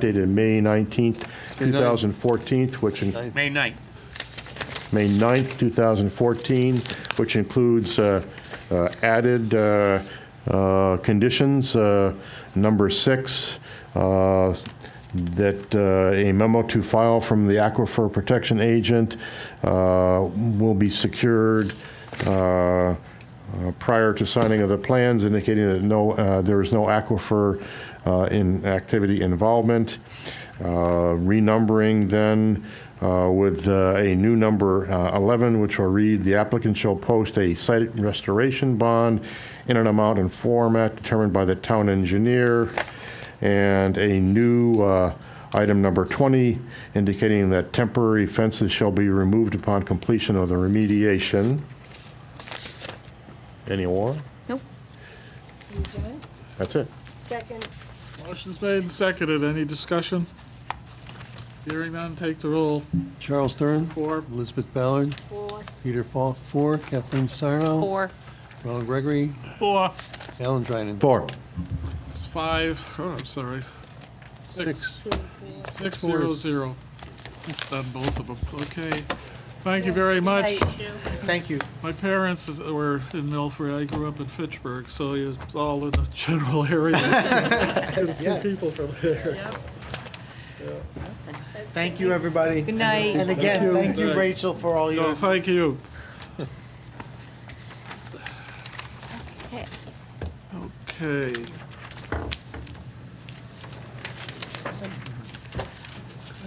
dated May 19th, 2014, which, in- May 9th. May 9th, 2014, which includes uh, uh, added uh, uh, conditions, uh, number six, uh, that uh, a memo to file from the Aquifer Protection Agent uh, will be secured uh, uh, prior to signing of the plans indicating that no, uh, there is no aquifer uh, in activity involvement. Uh, Renumbering then uh, with uh, a new number uh, 11, which will read, "The applicant shall post a site restoration bond in an amount and format determined by the town engineer." And a new uh, item number 20 indicating that temporary fences shall be removed upon completion of the remediation. Anyone? Nope. That's it. Second. Motion's made and seconded. Any discussion? Hearing none, take the roll. Charles Stern. Four. Elizabeth Ballard. Four. Peter Falk, four. Kathleen Sarno. Four. Ronald Gregory. Four. Alan Dryden. Four. Five, oh, I'm sorry. Six. Six, zero, zero. Done both of them. Okay. Thank you very much. Thank you. My parents is- were in Milford. I grew up in Fitchburg, so it's all in the general area. Thank you, everybody. Good night. And again, thank you, Rachel, for all your No, Thank you. Okay. Okay.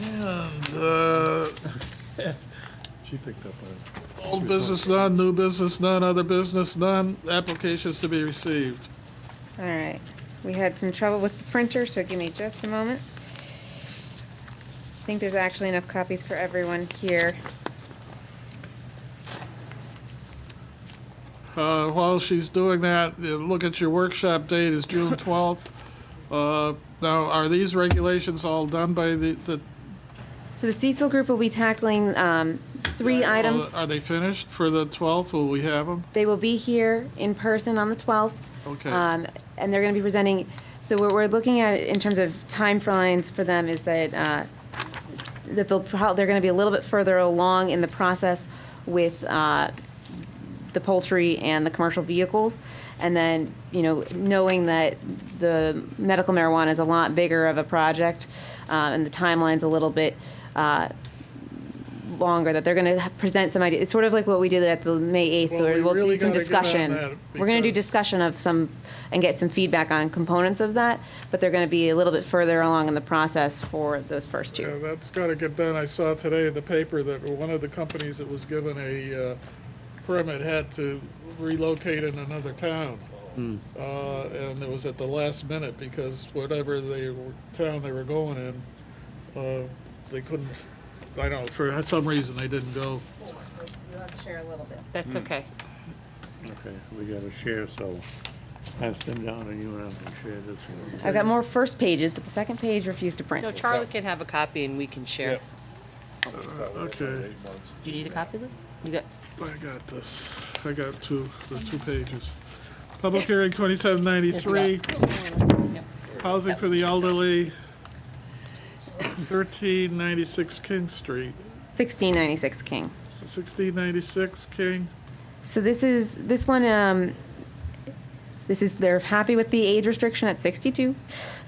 And, uh, She picked up on it. Old business none, new business none, other business none, applications to be received. All right. We had some trouble with the printer, so give me just a moment. I think there's actually enough copies for everyone here. Uh, While she's doing that, uh, look at your workshop date is June 12th. Uh, Now, are these regulations all done by the, the? So the Cecil group will be tackling um, three items. Uh, Are they finished for the 12th? Will we have them? They will be here in person on the 12th. Okay. Um, And they're going to be presenting, so what we're looking at in terms of timelines for them is that, uh, that they'll, prob- they're going to be a little bit further along in the process with uh, the poultry and the commercial vehicles. And then, you know, knowing that the medical marijuana is a lot bigger of a project uh, and the timeline's a little bit uh, longer, that they're going to present some ideas. It's sort of like what we did at the May 8th, Well, where we we'll really do some gotta get on discussion. that We're going to do because- discussion of some, and get some feedback on components of that, but they're going to be a little bit further along in the process for those first two. Yeah, that's got to get done. I saw today in the paper that one of the companies that was given a uh, permit had to relocate in another town. Uh, And it was at the last minute because whatever they, were- town they were going in, uh, they couldn't, I don't know, for some reason they didn't go. You'll have to share a little bit. That's okay. Okay, we gotta share, so pass them down and you and I can share this one. I've got more first pages, but the second page refused to print. No, Charlie can have a copy and we can share. Oh, Okay, Do you need a copy of them? You got, I got this. I got two, there's two pages. Public hearing 2793. Housing for the elderly, 1396 King Street, 1696 King. 1696 King. So this is, this one, um, this is, they're happy with the age restriction at 62.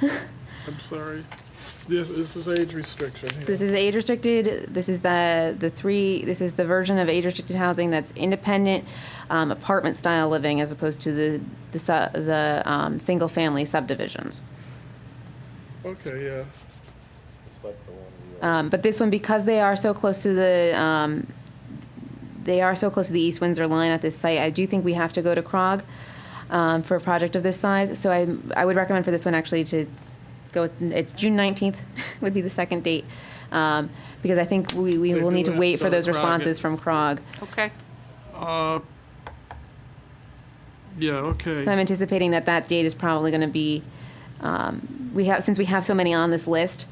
I'm sorry. This, this is age restriction So here. this is age restricted. This is the the three. This is the version of age restricted housing that's independent um, apartment style living, as opposed to the the su- the um, single family subdivisions. Okay, yeah. Um, but this one, because they are so close to the um, they are so close to the East Windsor line at this site, I do think we have to go to Krog um, for a project of this size. So I I would recommend for this one actually to go. With, it's June nineteenth would be the second date. Um, because I think we, we They will do need to have wait to for go to those Krog. responses from Krog. okay. Yeah, okay. So I'm anticipating that that date is probably going to be, um, we have, since we have so many on this list,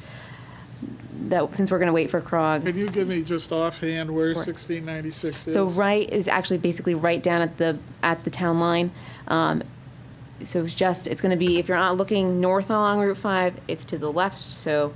that, since we're going to wait for Krog. Can you give me just offhand where Sure. 1696 is? So right is actually basically right down at the, at the town line. Um, So it's just, it's going to be, if you're out looking north along Route 5, it's to the left, so